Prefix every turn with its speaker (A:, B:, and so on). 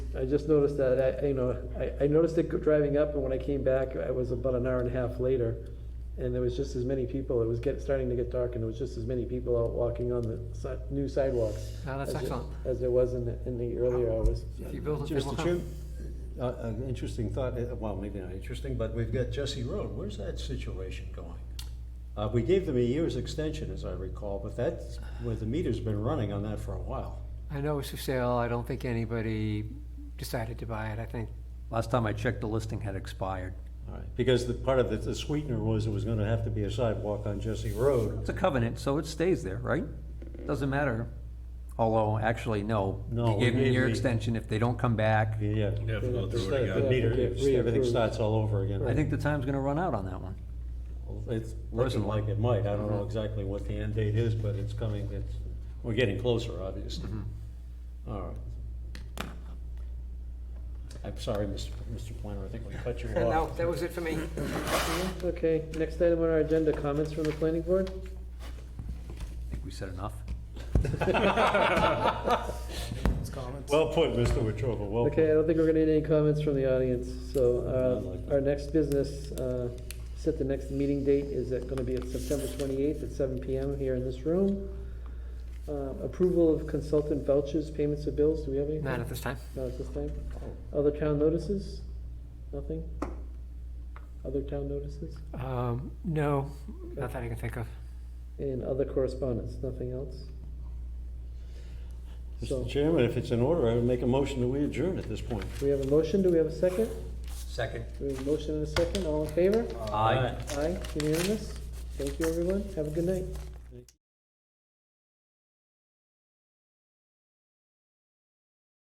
A: I just noticed that, I- I, you know, I, I noticed it driving up, and when I came back, I was about an hour and a half later, and there was just as many people, it was get, starting to get dark, and there was just as many people out walking on the si- new sidewalks.
B: Ah, that's
A: as there-
B: excellent.
A: As there was in, the- in the earlier hours.
B: If you build it, they will
C: Mr. Chair,
B: come.
C: uh, an interesting thought, uh, well, maybe not interesting, but we've got Jesse Road, where's that situation going? Uh, we gave them a year's extension, as I recall, but that's where the meter's been running on that for a while.
B: I know it's for sale, I don't think anybody decided to buy it, I think.
D: Last time I checked, the listing had expired.
C: All right. Because the part of the, the sweetener was it was gonna have to be a sidewalk on Jesse Road.
D: It's a covenant, so it stays there, right? Doesn't matter. Although, actually, no.
C: No,
D: You
C: we
D: gave them
C: gave
D: your
C: the-
D: extension. If they don't come back,
C: Yeah.
E: You have to go through it
C: The
E: again.
C: meter,
A: Yeah, get
C: everything
A: reapproved.
C: starts all over again.
D: I think the time's gonna run out on that one.
C: It's looking
D: Personally.
C: like it might. I don't know exactly what the end date is, but it's coming, it's, we're getting closer, obviously. All right. I'm sorry, Mr. Mr. Planner, I think we cut you
B: And
C: off.
B: that, that was it for me.
A: Okay, next item on our agenda, comments from the planning board?
D: I think we said enough.
C: Well put, Mr. Wetruba, well
A: Okay, I
C: put.
A: don't think we're gonna need any comments from the audience, so,
C: like
A: uh,
C: that.
A: our next business, uh, set the next meeting date, is it gonna be at September twenty-eighth at seven PM here in this room? Uh, approval of consultant vouchers, payments of bills, do we have any?
B: Not at this time.
A: Not at this time?
C: Oh.
A: Other town notices? Nothing? Other town notices?
B: Um, no, not that I can think of.
A: And other correspondence, nothing else? So,
C: Mr. Chairman, if it's in order, I would make a motion that we adjourn at this point.
A: we have a motion, do we have a second?
D: Second.
A: We have a motion and a second, all in favor?
D: Aye.
A: Aye, unanimous. Thank you, everyone. Have a good night.